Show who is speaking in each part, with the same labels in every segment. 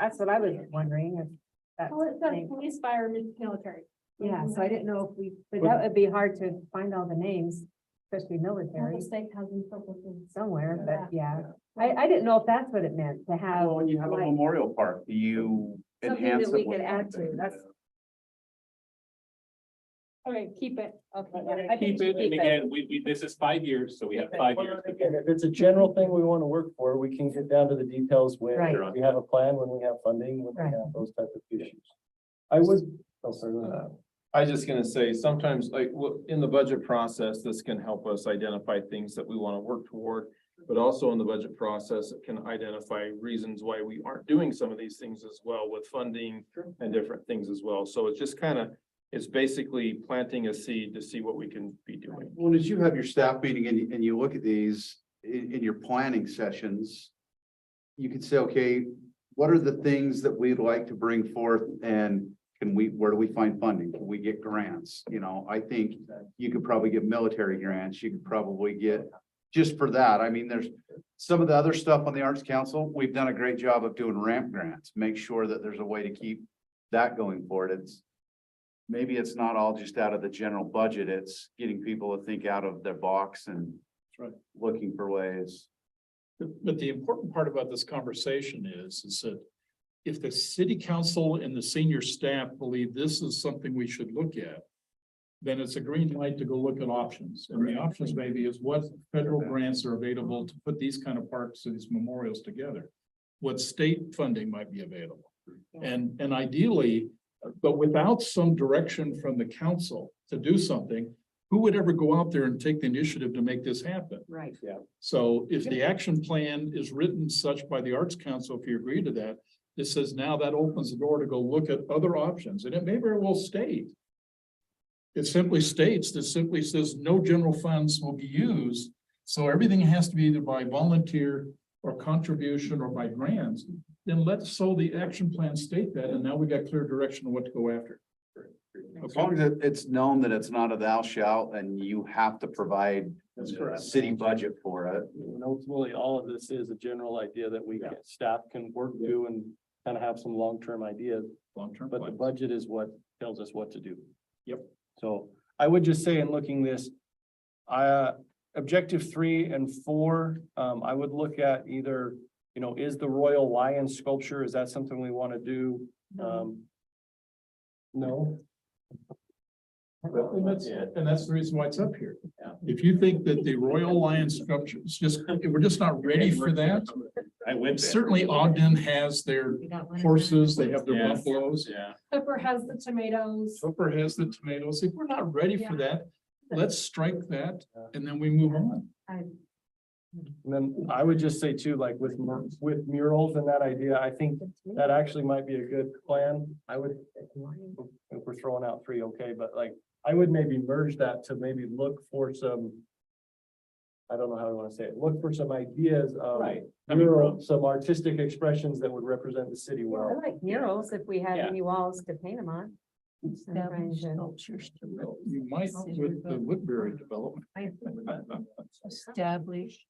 Speaker 1: That's what I was wondering if that's.
Speaker 2: Well, it's got
Speaker 1: the name.
Speaker 2: police, fire, and military.
Speaker 1: Yeah, so I didn't know if we, but that would be hard to find all the names, especially military
Speaker 2: The state has them purple things.
Speaker 1: somewhere, but yeah. I, I didn't know if that's what it meant to have.
Speaker 3: Well, when you have a
Speaker 1: like-
Speaker 3: memorial park, do you
Speaker 1: Something that
Speaker 3: enhance it?
Speaker 1: we
Speaker 3: with
Speaker 1: could add to,
Speaker 3: something?
Speaker 1: that's-
Speaker 2: Okay, keep it.
Speaker 1: Okay,
Speaker 4: We're
Speaker 1: I
Speaker 4: gonna
Speaker 1: think
Speaker 4: Keep
Speaker 1: we should
Speaker 4: it, and
Speaker 1: keep
Speaker 4: again, we, we, this is five years, so we have five
Speaker 5: Well,
Speaker 4: years. to
Speaker 5: again, If it's a general thing we want to work for, we can get down to the details when
Speaker 1: Right.
Speaker 5: we have a plan, when we have funding, when we
Speaker 1: Right.
Speaker 5: have those type of issues. I would, oh, sorry. go ahead.
Speaker 6: Uh, I was just gonna say, sometimes like, w- in the budget process, this can help us identify things that we wanna work toward. But also in the budget process, it can identify reasons why we aren't doing some of these things as well with funding and different things as well. So it's just kinda, it's basically planting a seed to see what we can be doing.
Speaker 3: Well, as you have your staff meeting and, you- and you look at these in, in your planning sessions, you could say, okay, what are the things that we'd like to bring forth and can we, where do we find funding? Can we get grants? You know, I think you could probably get military grants. You could probably get just for that. I mean, there's some of the other stuff on the Arts Council, we've done a great job of doing ramp grants. Make sure that there's a way to keep that going forward. It's maybe it's not all just out of the general budget, it's getting people to think out of their box and
Speaker 7: That's right.
Speaker 3: looking for ways.
Speaker 7: But but the important part about this conversation is, is that if the city council and the senior staff believe this is something we should look at, then it's a green light to go look at options. And the options maybe is what federal grants are available to put these kind of parks and these memorials together. What state funding might be available. And, and ideally, but without some direction from the council to do something, who would ever go out there and take the initiative to make this happen?
Speaker 1: Right.
Speaker 7: So if the action plan is written such by the Arts Council, if you agree to that, it says now that opens the door to go look at other options, and it may very well state. It simply states, that simply says no general funds will be used, so everything has to be either by volunteer or contribution or by grants. Then let's, so the action plan state that, and now we got clear direction on what to go after.
Speaker 3: As
Speaker 7: Okay.
Speaker 3: long as it- it's known that it's not a thou shalt and you have to provide
Speaker 4: That's
Speaker 3: a city budget for it.
Speaker 5: And ultimately, all of this is a general idea that we, can- staff can work to and kind of have some long-term ideas,
Speaker 7: Long-term
Speaker 5: but the
Speaker 7: plan.
Speaker 5: budget is what tells us what to do.
Speaker 7: Yep.
Speaker 5: So I would just say in looking this, uh, objective three and four, um, I would look at either, you know, is the Royal Lion sculpture, is that something we want to do? Um, no,
Speaker 7: And that's, and that's the reason why it's up here.
Speaker 5: Yeah.
Speaker 7: If you think that the Royal Lion sculpture is just, we're just not ready for that,
Speaker 4: I went
Speaker 7: certainly Ogden has their horses, they have their Oh,
Speaker 4: Yeah.
Speaker 7: buffaloes.
Speaker 4: Yeah.
Speaker 2: Pepper has the tomatoes.
Speaker 7: Hooper has the tomatoes. If we're not ready for that, let's strike that
Speaker 5: Yeah.
Speaker 7: and then we move on.
Speaker 5: and then I would just say too, like with, mur- with murals and that idea, I think that actually might be a good plan. I would, if we're throwing out three, okay, but like, I would maybe merge that to maybe look for some. I don't know how I want to say it, look for some ideas of
Speaker 4: I mean,
Speaker 5: mural, some artistic expressions that would represent the city
Speaker 1: I
Speaker 5: well.
Speaker 1: like murals if we had
Speaker 5: Yeah.
Speaker 1: any walls to paint them on. uh, Establish
Speaker 8: sculptures to
Speaker 7: You might with the Woodbury development.
Speaker 8: establish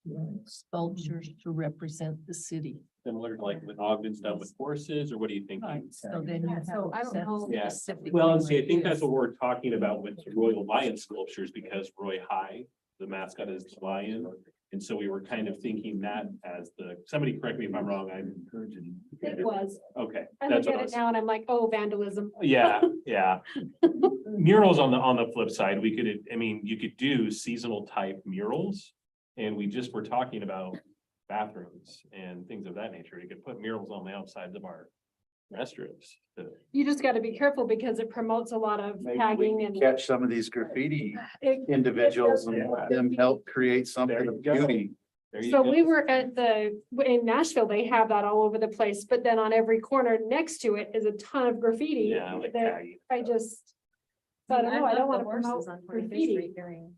Speaker 8: sculptures to represent the city.
Speaker 4: Similar to
Speaker 8: like
Speaker 4: when Ogden's done with horses, or what do you think?
Speaker 8: So then you
Speaker 2: Yeah,
Speaker 8: have.
Speaker 2: so I don't
Speaker 8: set
Speaker 2: know.
Speaker 4: Yeah.
Speaker 8: specifically
Speaker 4: Well, and see, I
Speaker 8: what
Speaker 4: think
Speaker 8: it
Speaker 4: that's
Speaker 8: is.
Speaker 4: what we're talking about with the Royal Lion sculptures, because Roy High, the mascot is the lion. And so we were kind of thinking that as the, somebody correct me if I'm wrong, I'm encouraging.
Speaker 2: It was.
Speaker 4: Okay,
Speaker 2: I
Speaker 4: that's
Speaker 2: look
Speaker 4: what I
Speaker 2: at it
Speaker 4: was,
Speaker 2: now and I'm like, oh, vandalism.
Speaker 4: yeah, yeah. Murals on the, on the flip side, we could, I mean, you could do seasonal type murals. And we just were talking about bathrooms and things of that nature. You could put murals on the outsides of our restrooms. to-
Speaker 2: You just gotta be careful because it promotes a lot of
Speaker 3: Maybe
Speaker 2: tagging
Speaker 3: we can
Speaker 2: and
Speaker 3: catch some of these graffiti
Speaker 2: it-
Speaker 3: individuals and let them help create
Speaker 4: There
Speaker 3: something
Speaker 4: you
Speaker 3: of
Speaker 4: go.
Speaker 3: beauty.
Speaker 4: there you
Speaker 2: So
Speaker 4: go.
Speaker 2: we were at the, in Nashville, they have that all over the place, but then on every corner next to it is a ton of graffiti.
Speaker 4: Yeah, like
Speaker 2: that
Speaker 4: tagging.
Speaker 2: I just. So I don't know, I don't
Speaker 1: love
Speaker 2: wanna
Speaker 1: the horses
Speaker 2: promote
Speaker 1: on 45th
Speaker 2: graffiti.
Speaker 1: Street during-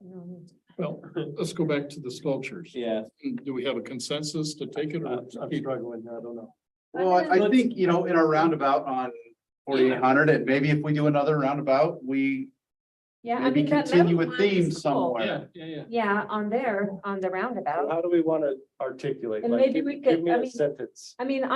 Speaker 1: You know, it's-
Speaker 7: Well, let's go back to the sculptures.
Speaker 4: Yeah,
Speaker 7: Do we have a consensus to take it
Speaker 5: I'm
Speaker 7: or?
Speaker 5: I'm struggling, I don't know.
Speaker 3: Well, I- I think, you know, in our roundabout on forty-eight hundred, and maybe if we do another roundabout, we
Speaker 2: Yeah. I
Speaker 3: maybe
Speaker 2: mean, that
Speaker 3: continue
Speaker 2: metal
Speaker 3: a
Speaker 2: one is
Speaker 3: theme
Speaker 2: cool.
Speaker 3: somewhere.
Speaker 7: yeah, yeah.
Speaker 1: Yeah, on there, on the roundabout.
Speaker 5: How do we want to articulate?
Speaker 1: And
Speaker 5: Like,
Speaker 1: maybe
Speaker 5: give-
Speaker 1: we
Speaker 5: Give
Speaker 1: could-
Speaker 5: me
Speaker 1: I
Speaker 5: a
Speaker 1: mean-
Speaker 5: sentence.
Speaker 1: I mean,